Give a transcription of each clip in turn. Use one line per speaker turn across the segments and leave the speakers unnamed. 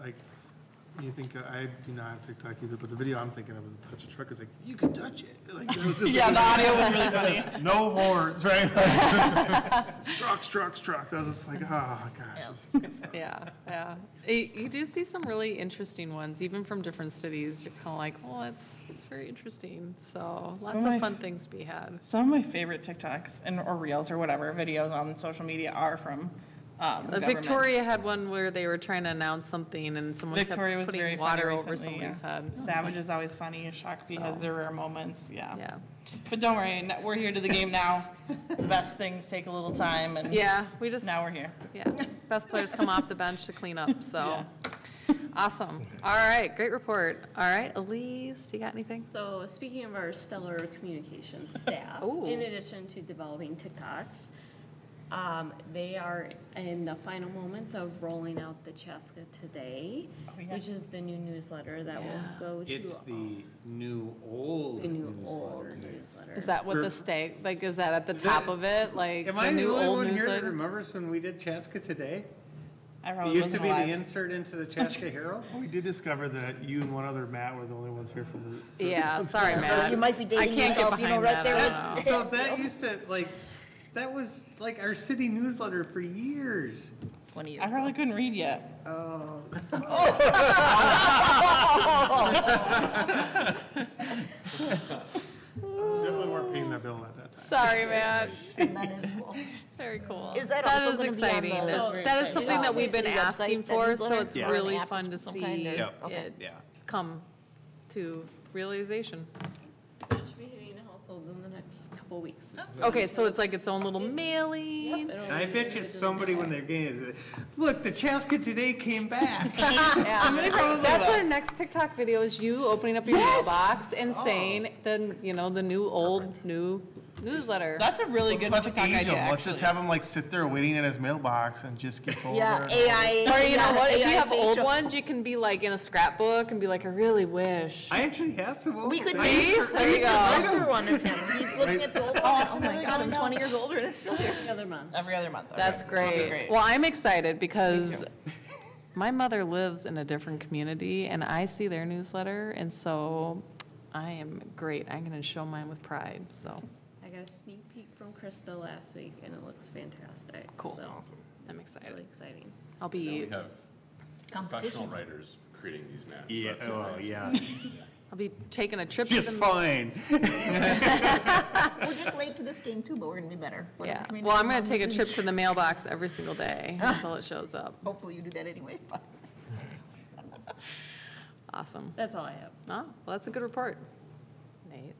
like, you think, uh, I do not have TikTok either, but the video I'm thinking of was the touch a truck, it's like, you can touch it. Like, that was just
Yeah, the
like,
audio was really funny.
no horns, right? Trucks, trucks, trucks. I was just like, oh, gosh, this is good stuff.
Yeah, yeah. Y- You do see some really interesting ones, even from different cities. You're kind of like, well, it's, it's very interesting. So lots
my
of
f-
fun things to be had.
Some of my favorite TikToks and or reels or whatever videos on social media are from um,
Uh, Victoria
governments.
had one where they were trying to announce something and someone kept
Victoria was very
putting
funny
water over
recently. yeah.
somebody's head.
Savage Oh. is always funny. Shock B has
So-
their rare moments. Yeah.
Yeah.
But don't worry, n- we're here to the game now. the best things take a little time, and
Yeah, we just.
now we're here.
Yeah, best players come off the bench to clean up, so.
Yeah.
Awesome. All right, great report. All right, Elise, you got anything?
So speaking of our stellar communications staff,
Ooh.
in addition to developing TikToks, um, they are in the final moments of rolling out the Chaska Today,
Oh,
yeah.
which is the new newsletter that
Yeah.
will go to
It's
all-
the new old
the new old
newsletter.
newsletter.
Is that what the
For-
stake, like, is that at the top
that-
of it, like?
Am I the
new
only
old
one here that
newsletter?
remembers when we did Chaska Today?
I
It
probably
used to
wasn't
be the
alive.
insert into the Chaska Herald.
We did discover that you and one other Matt were the only ones here for the.
Yeah, sorry, Matt.
You might be
I
dating
can't get
yourself, you know,
behind that,
right there
I
with.
don't know.
So that used to, like, that was like our city newsletter for years.
I probably couldn't read yet.
Definitely weren't paying that bill at that time.
Sorry, Matt.
That is cool.
Very cool.
Is that also
is
gonna
exciting.
be on the-
That-
Oh, very
That is
exciting.
something that
Um,
we've been
city website,
asking
that
for, so
newsletter?
it's
Yeah.
really
An app
fun to
of some kind,
see
or-
it
Yep. Okay.
come to realization.
So it should be hitting households in the next couple weeks. It's-
Okay, so it's like its own little
Yep,
mailing.
it'll
And I
be
bet you
individually
somebody when they're getting it, look, the Chaska Today came back.
Somebody probably
That's
will.
our next TikTok video is you opening up your mailbox and saying
Oh.
the, you know, the new, old, new newsletter.
That's a really good
Let's
TikTok
age
idea.
him. Let's
actually.
just have him like sit there waiting in his mailbox and just gets older.
Yeah,
and older.
AI.
Or you know
yeah,
what, if you
AI
have old
facial.
ones, you can be like in a scrapbook and be like, I really wish.
I actually have some old
We could
ones.
make
See? There you
an
go.
older one of him. He's looking at the old one. Oh my God, I'm 20 years older and it's still here.
Every other month.
every other month. okay.
That's great. Well, I'm excited because my mother lives in a different community and I see their newsletter and so I am great. I'm gonna show mine with pride, so
I got a sneak peek from Krista last week and it looks fantastic.
Cool.
So,
I'm
Really
excited.
exciting.
I'll be,
We have professional writers creating these maps. so
Yeah,
that's
oh,
amazing.
yeah.
I'll be taking a trip to
Just
the.
fine.
We're just late to this game too, but we're gonna be better. We're
Yeah,
community
well, I'm gonna
mom.
take a trip to the mailbox every single day until it shows up.
Hopefully you do that anyway, but.
Awesome.
That's all I have.
Oh, well, that's a good report. Nate,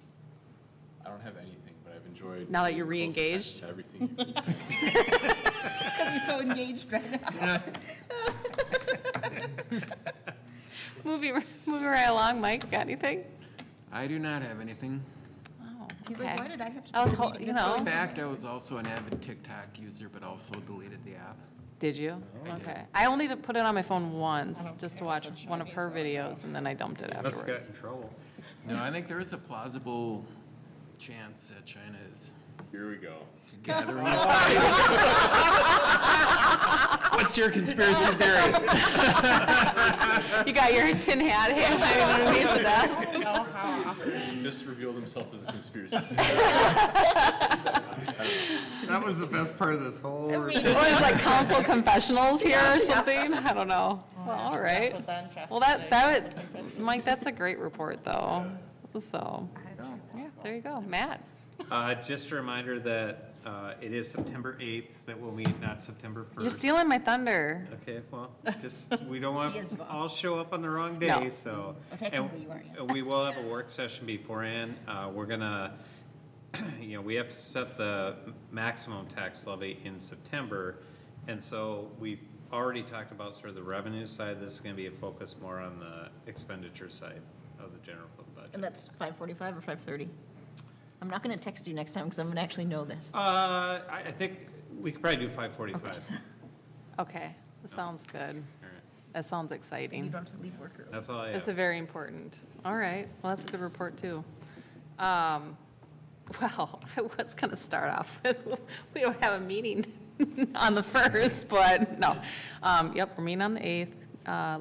I don't have anything, but I've enjoyed.
Now that you're
being close
re-engaged?
attached to Everything you've been saying.
Because you're so engaged right now.
moving, moving right along, Mike, got anything?
I do not have anything.
Oh,
He's like,
okay.
why did I have to?
I was,
do the
hol-
meeting?
you
It's
know.
really
In fact, I was also an avid TikTok user, but also deleted the app.
Did you? Okay. I only did- put it on my phone once, just to watch one of her videos, and then I dumped it
Let's get
afterwards.
in trouble.
No, I think there is a plausible chance that China is
Here we go.
gathering. What's your conspiracy theory?
You got your tin hat hanging underneath the desk.
He just revealed himself as a conspiracy.
That was the best part of this whole.
What is like council confessionals here or something? I don't know. Well, all right.
But then Chaska
Well,
Today
that, that,
is also
would- Mike, that's a great report, though. So, yeah, there you go. Matt?
Uh, Just a reminder that uh, it is September 8th that we'll meet, not September 1st.
You're stealing my thunder.
Okay, well, just, we don't want,
He is wrong.
all show up on the wrong
No.
day, so.
Well, technically you aren't, yeah.
And we will have a work session beforehand. Uh, We're gonna, you know, we have to set the maximum tax levy in September. And so we already talked about sort of the revenue side. This is gonna be a focus more on the expenditure side of the general fund budget.
And that's 5:45 or 5:30. I'm not gonna text you next time because I'm gonna actually know this.
Uh, I, I think we could probably do five forty-five.
Okay, that sounds good. That sounds
You
exciting.
don't have to leave work early.
That's all I
That's a
have.
very important. All right, well, that's a good report, too. Um, Well, I was going to start off with, we don't have a meeting on the 1st, but no. Um, Yep, we're meeting on the 8th. Uh,